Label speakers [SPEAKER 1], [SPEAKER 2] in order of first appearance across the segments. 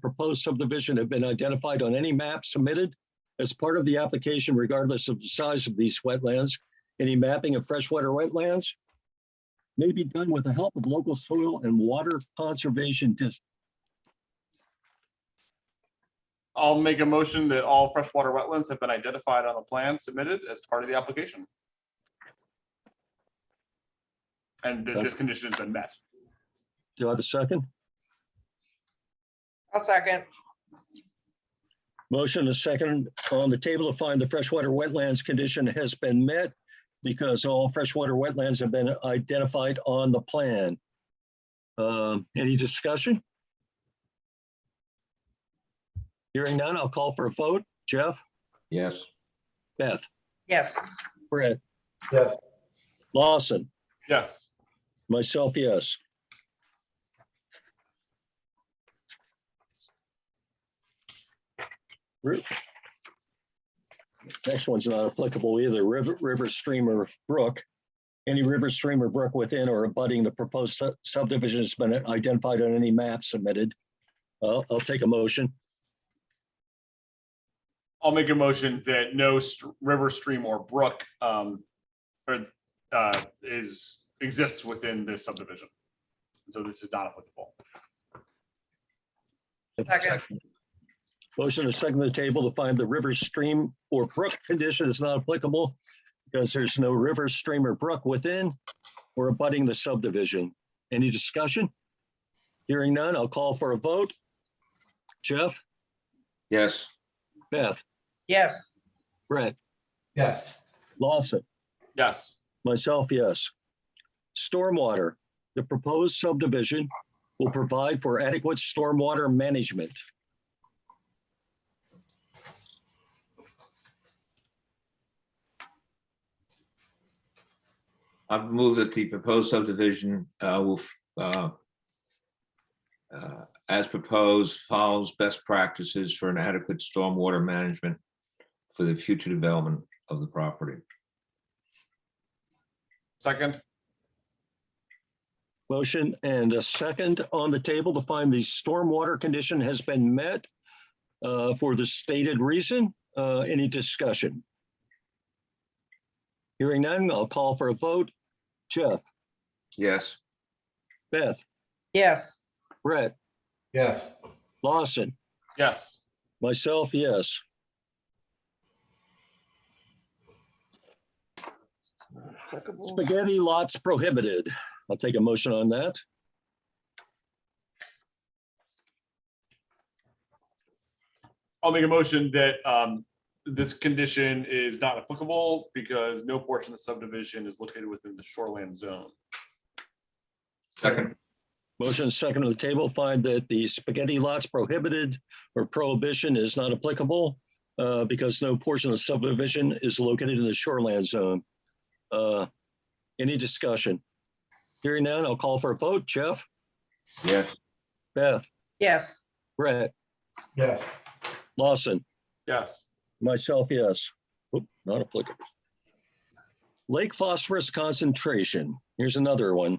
[SPEAKER 1] proposed subdivision have been identified on any map submitted as part of the application regardless of the size of these wetlands. Any mapping of freshwater wetlands may be done with the help of local soil and water conservation districts.
[SPEAKER 2] I'll make a motion that all freshwater wetlands have been identified on the plan submitted as part of the application. And that this condition has been met.
[SPEAKER 1] Do I have a second?
[SPEAKER 3] I'll second.
[SPEAKER 1] Motion is second on the table to find the freshwater wetlands condition has been met because all freshwater wetlands have been identified on the plan. Um, Any discussion? Hearing none, I'll call for a vote. Jeff,
[SPEAKER 4] yes,
[SPEAKER 1] Beth,
[SPEAKER 3] Yes,
[SPEAKER 1] Brett,
[SPEAKER 5] yes,
[SPEAKER 1] Lawson,
[SPEAKER 2] Yes,
[SPEAKER 1] myself, yes. Ru- Next one's not applicable either, river, river stream or brook. Any river stream or brook within or abutting the proposed su- subdivision has been identified on any map submitted. Uh, I'll take a motion.
[SPEAKER 2] I'll make a motion that no st- river, stream or brook um or uh is exists within this subdivision. So this is not applicable.
[SPEAKER 3] Second.
[SPEAKER 1] Motion to second the table to find the river stream or brook condition is not applicable because there's no river, stream or brook within or abutting the subdivision. Any discussion? Hearing none, I'll call for a vote. Jeff,
[SPEAKER 4] yes,
[SPEAKER 1] Beth,
[SPEAKER 3] yes,
[SPEAKER 1] Brett,
[SPEAKER 5] yes,
[SPEAKER 1] Lawson,
[SPEAKER 2] Yes,
[SPEAKER 1] myself, yes. Stormwater, the proposed subdivision will provide for adequate stormwater management.
[SPEAKER 4] I've moved that the proposed subdivision uh, will uh, uh, as proposed follows best practices for an adequate stormwater management for the future development of the property.
[SPEAKER 2] second,
[SPEAKER 1] Motion and a second on the table to find the stormwater condition has been met uh, for the stated reason. Uh, Any discussion? Hearing none, I'll call for a vote. Jeff,
[SPEAKER 4] Yes,
[SPEAKER 1] Beth,
[SPEAKER 3] yes,
[SPEAKER 1] Brett,
[SPEAKER 5] yes,
[SPEAKER 1] Lawson,
[SPEAKER 2] yes,
[SPEAKER 1] myself, yes. Spaghetti lots prohibited. I'll take a motion on that.
[SPEAKER 2] I'll make a motion that um this condition is not applicable because no portion of the subdivision is located within the shoreland zone.
[SPEAKER 4] second,
[SPEAKER 1] Motion second on the table, find that the spaghetti lots prohibited or prohibition is not applicable uh, because no portion of subdivision is located in the shoreland zone. Uh, Any discussion? Hearing none, I'll call for a vote. Jeff,
[SPEAKER 4] yes,
[SPEAKER 1] Beth,
[SPEAKER 3] yes,
[SPEAKER 1] Brett,
[SPEAKER 5] yes,
[SPEAKER 1] Lawson,
[SPEAKER 2] Yes,
[SPEAKER 1] myself, yes. Oop, Not applicable. Lake phosphorus concentration. Here's another one.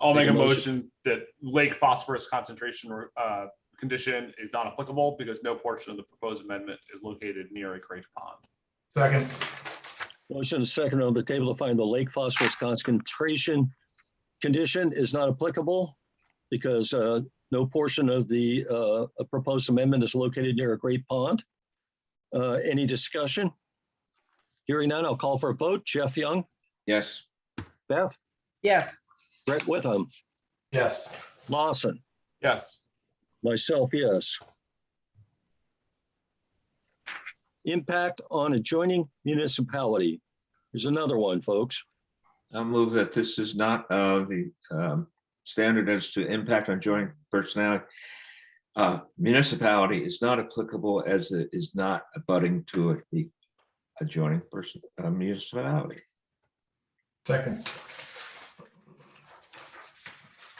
[SPEAKER 2] I'll
[SPEAKER 1] Make
[SPEAKER 2] make
[SPEAKER 1] a
[SPEAKER 2] a motion that lake phosphorus concentration uh condition is not applicable because no portion of the proposed amendment is located near a creek pond.
[SPEAKER 5] second,
[SPEAKER 1] Motion second on the table to find the lake phosphorus concentration condition is not applicable because uh, no portion of the uh, proposed amendment is located near a great pond. Uh, Any discussion? Hearing none, I'll call for a vote. Jeff Young,
[SPEAKER 4] yes,
[SPEAKER 1] Beth,
[SPEAKER 3] yes,
[SPEAKER 1] Brett Witham,
[SPEAKER 5] yes,
[SPEAKER 1] Lawson,
[SPEAKER 2] Yes,
[SPEAKER 1] myself, yes. Impact on adjoining municipality. There's another one, folks.
[SPEAKER 4] I'll move that this is not uh, the um, standard as to impact on joint personality. uh, Municipality is not applicable as it is not abutting to a adjoining person uh, municipality.
[SPEAKER 5] second,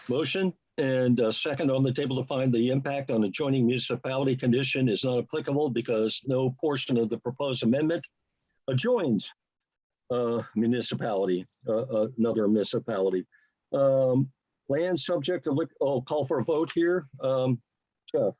[SPEAKER 1] Motion and uh, second on the table to find the impact on adjoining municipality condition is not applicable because no portion of the proposed amendment adjoins uh, municipality, uh, uh, another municipality. Um, Land subject to look, oh, call for a vote here. Um, Jeff?